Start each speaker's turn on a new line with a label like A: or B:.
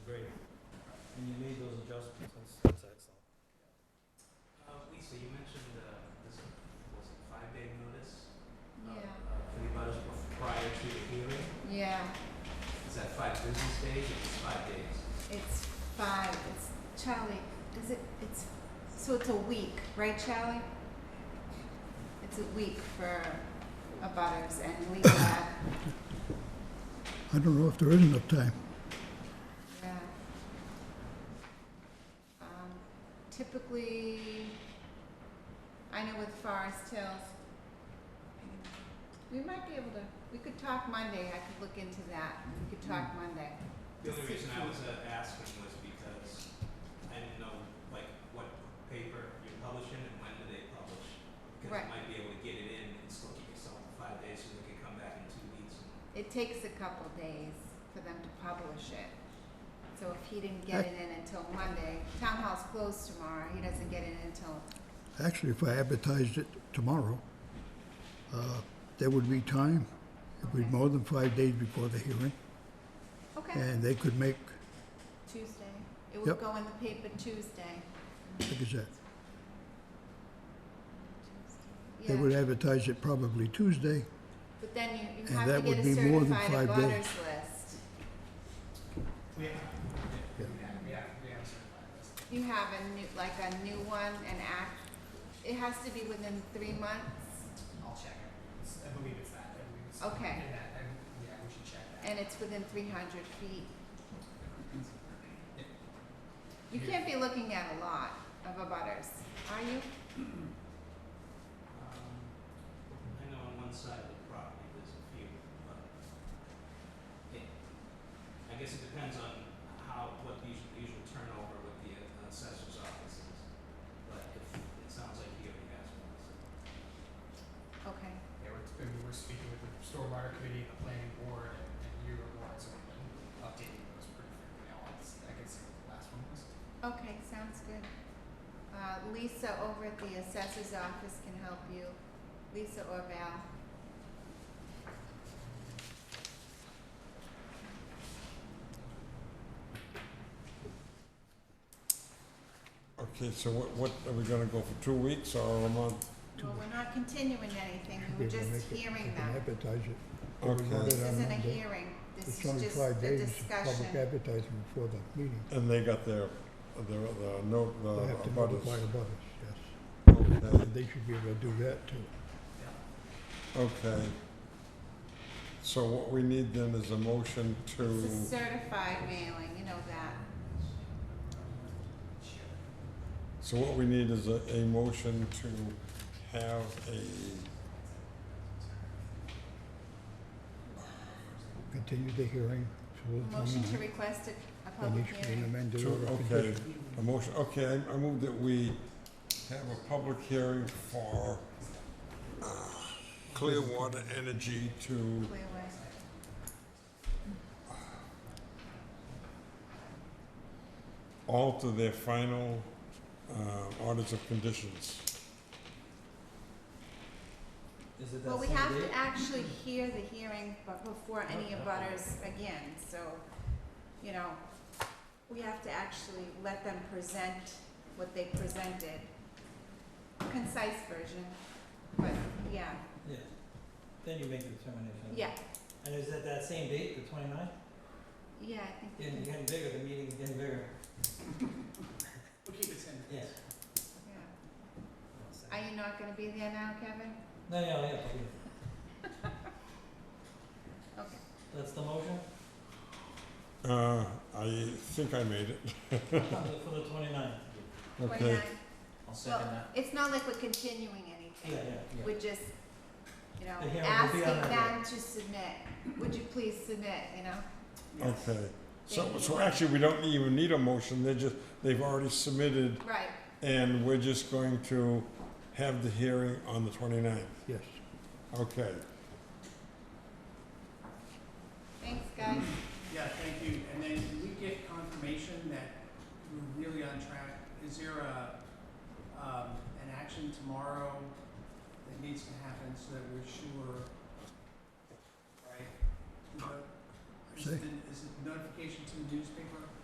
A: Uh, Uh,
B: five, it's Charlie, is it, it's, so it's a week, right Charlie? It's a week for abutters and legal ad,
C: I don't know if there is enough time.
B: yeah. Um, typically, I know with Forest Hills, we might be able to, we could talk Monday, I could look into that, we could talk Monday.
D: The only reason I was uh, asking was because I didn't know, like, what paper you're publishing and when do they publish? Because
B: Right.
D: I might be able to get it in and still give yourself the five days so they can come back in two weeks.
B: It takes a couple days for them to publish it. So if he didn't get it in until Monday, town hall's closed tomorrow, he doesn't get it until,
C: Actually, if I advertised it tomorrow, uh, there would be time. It would be
B: Okay.
C: more than five days before the hearing,
B: okay,
C: and they could make,
B: Tuesday. It
C: Yep.
B: would go in the paper Tuesday.
C: like I said, they would
B: Yeah,
C: advertise it probably Tuesday.
B: but then you, you
C: and
B: have
C: that
B: to get
C: would
B: a
C: be more than
B: certified
C: five
B: abutters
C: days.
B: list.
D: Yeah.
C: Yeah.
D: Yeah, yeah.
B: You have a new, like a new one, an act, it has to be within three months,
A: I'll check it. It's- I believe it's that. I believe it's
B: Okay.
A: in that. I, yeah, we should check that.
B: and it's within three hundred feet. You can't be looking at a lot of abutters, are you?
D: Um, I know on one side of the property, there's a few, but it, I guess it depends on how, what the usual, usual turnover with the uh, assessor's office is. But if, it sounds like he already has one, so.
B: Okay.
A: Yeah, we're, I mean, we're speaking with the stormwater committee and the planning board and, and you were more, so we've been updating those pretty frequently. I'll, I can see what the last one was.
B: Okay, sounds good. Uh, Lisa over at the assessor's office can help you, Lisa or Val.
E: Okay, so what, what, are we gonna go for two weeks or a month?
B: Well, we're not continuing anything, we
C: They
B: were
C: would
B: just
C: make it-
B: hearing
C: they can
B: them.
C: Advertise it. They would
E: Okay.
C: want it
B: This
C: on
B: isn't a
C: Monday.
B: hearing, this is
C: It's
B: just
C: only
B: a
C: five days,
B: discussion.
C: public advertising before the meeting.
E: And they got their, their, their note, the
C: They have to
E: abutters.
C: notify abutters, yes.
E: Okay,
C: And they should be able to do that too.
E: okay. So what we need then is a motion to,
B: It's a certified mailing, you know that.
A: Sure.
E: so what we need is a, a motion to have a,
C: Continue the hearing. till the
B: Motion to
C: time,
B: request a, a
C: And
B: public
C: issue an
B: hearing.
C: amended
E: to,
C: or a
E: okay,
C: condition.
E: a motion, okay, I, I move that we have a public hearing for uh, Clearwater Energy to
B: Clearway.
E: alter their final uh, orders of conditions.
D: Is it
B: Well, we have to actually hear the hearing, but before any abutters again, so, you know, we have to actually let them present what they presented. Concise version, but, yeah,
D: Yeah, then you make the determination.
B: yeah,
D: And is it that same date, the twenty-ninth?
B: yeah, I think, we can-
D: getting bigger, the meeting's getting bigger.
A: We'll keep it ten
D: Yes.
B: yeah. Are you not gonna be there now, Kevin?
D: No, no, yeah,
B: Okay.
D: That's the motion?
E: Uh, I think I made it.
D: For the twenty-ninth?
E: Okay.
B: 29.
D: I'll
B: Well, it's not like we're continuing anything. We're just, you know,
D: The hearing will
B: asking
D: be on that
B: them to submit, would you please submit, you know?
E: Okay. So,
B: Thank you.
E: so actually, we don't even need a motion. They just, they've already submitted,
B: Right,
E: and we're just going to have the hearing on the 29th.
C: Yes.
E: Okay.
B: thanks, guys.
A: Yeah, thank you. And then we get confirmation that we're really on track. Is there a, um, an action tomorrow that needs to happen so that we're sure, right? But is
C: Say.
A: it, is it notification to the newspaper?